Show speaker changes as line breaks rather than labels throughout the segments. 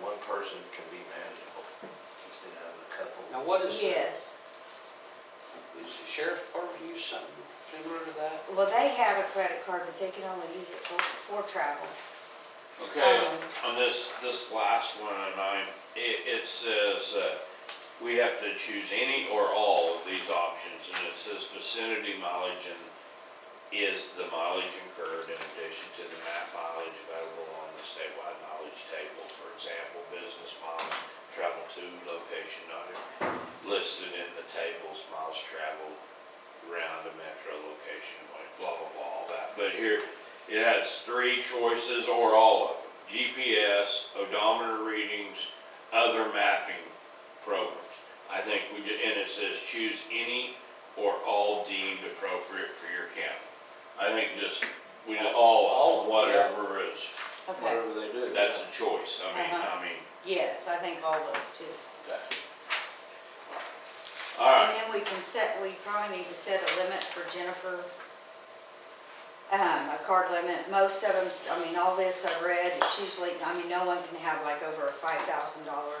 one person can be manageable instead of a couple.
Now, what is, is
Yes,
the sheriff's department use something similar to that?
well, they have a credit card, but they can only use it for, for travel.
Okay,
Um,
on this, this last one on nine, it, it says, uh, we have to choose any or all of these options, and it says vicinity mileage and is the mileage incurred in addition to the map mileage available on the statewide mileage table, for example, business miles travel to location not listed in the tables, miles traveled around the metro location, like blah, blah, blah, all that. But here, it has three choices or all of them. GPS, odometer readings, other mapping programs. I think we did, and it says choose any or all deemed appropriate for your county. I think just, we, do all,
All
of
of
them,
them,
whatever is,
Okay,
Whatever they do.
that's a choice, I mean, I
Uh-huh.
mean,
yes, I think all those too.
that. All
And
right,
then we can set, we probably need to set a limit for Jennifer, um, a card limit. Most of them, I mean, all this I read, it's usually, I mean, no one can have like over a five thousand dollar.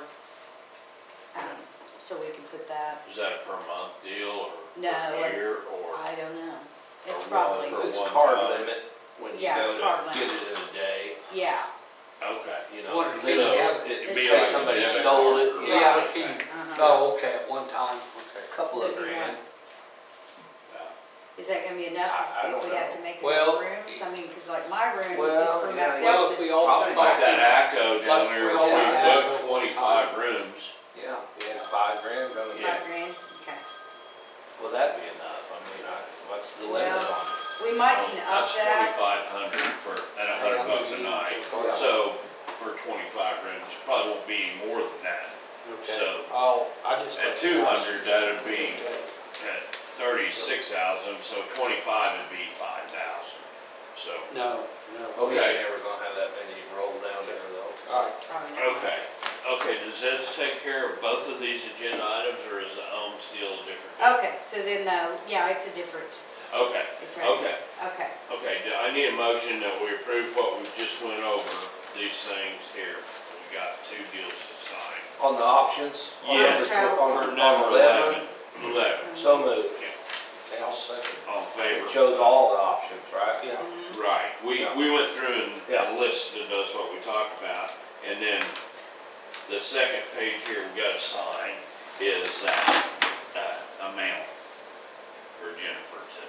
um, So we can put that,
is that a per month deal or
No,
per year or?
I don't know. It's
Or one
probably,
for-
It's
one
card
time.
limit when you
Yeah,
go
it's card
to
limit.
get it in a day,
yeah,
Okay.
you know.
What,
you
so
know,
it'd
it'd
be
say
like a
somebody
debit
stole
card
it,
or-
yeah,
Yeah, can you,
uh-huh.
oh, okay, at one time, okay.
couple of
So do you
grand.
want- Is that gonna be enough?
I- I
Do you
don't
think we have
know.
to make
Well,
enough rooms? I mean, cause like my room, just
Well,
for
yeah,
Well,
myself
if we
is,
all
Probably
take
like
off,
that ACO down there,
Like,
we
we all have
booked
it.
twenty-five rooms.
yeah.
Yeah, five grand, I mean,
my grand, okay.
will that be enough? I mean, I, what's the limit
Well,
on it?
We might need to up
That's
that,
twenty-five hundred for, at a hundred bucks a night.
Yeah.
So for twenty-five rooms, probably won't be more than that. So
Oh, I just.
at two hundred, that'd be at thirty-six thousand, so twenty-five would be five thousand. So,
No, no.
Okay,
Okay.
never gonna have that many roll down there though.
All right,
probably not.
okay, okay, does this take care of both of these agenda items or is the home still a different?
Okay, so then, uh, yeah, it's a different,
Okay,
it's right
okay.
here. Okay,
Okay, do- I need a motion that we approve what we just went over, these things here. We got two deals to sign.
On the options? on
Yeah.
number tw- On
For
number eleven,
Eleven,
so moved.
okay, I'll second.
all in favor?
It shows all the options, right?
Yeah,
Right, we,
Yeah.
we went through
Yeah.
and listed us what we talked about, and then the second page here we gotta sign is, uh, uh, amount for Jennifer to,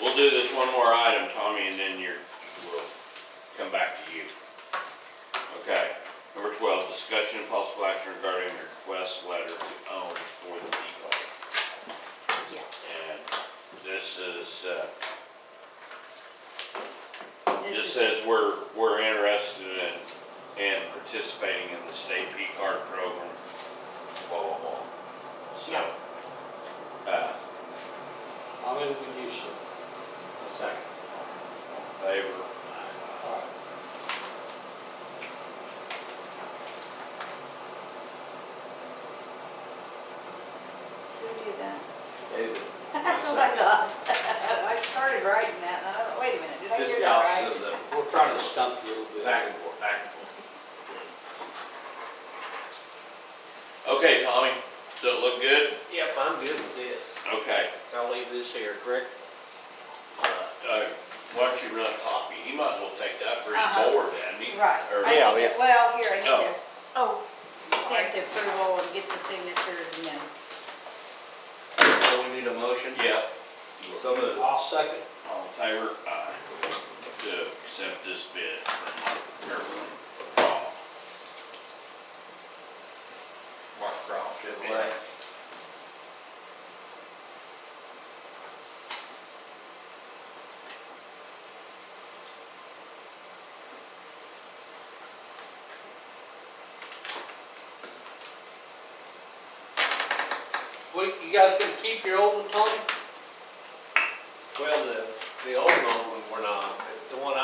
we'll do this one more item, Tommy, and then you're, we'll come back to you. Okay, number twelve, discussion and possible action regarding request letter to own for the depot.
yeah.
And this is, uh,
This
Just
is
says we're, we're interested in, in participating in the state P card program, blah, blah, blah. So, uh,
I'll move with you, sir.
Second.
favor,
All right.
Who did that?
David.
That's what I thought. I started writing that, and I thought, wait a minute, did I
Just
hear
the
that right?
opposite of the
We're trying to stump you a little bit.
back and forth, back and forth.
okay, Tommy, does it look good?
Yep, I'm good with this.
Okay,
I'll leave this here, correct?
uh, why don't you run a copy, he might as well take that for
Uh-huh.
his board, hadn't he?
Right.
Or-
I
Yeah,
think it- Well, here, I need
Oh.
this. Oh. Stamp the approval and get the signatures and then,
So we need a motion?
Yeah,
So moved.
I'll second.
all in favor, aye, to accept this bid from Kirkland Law.
Mark Cross, Chevrolet.
Yeah.
What, you guys gonna keep your old one, Tony?
Well, the, the old one, we're not, but the one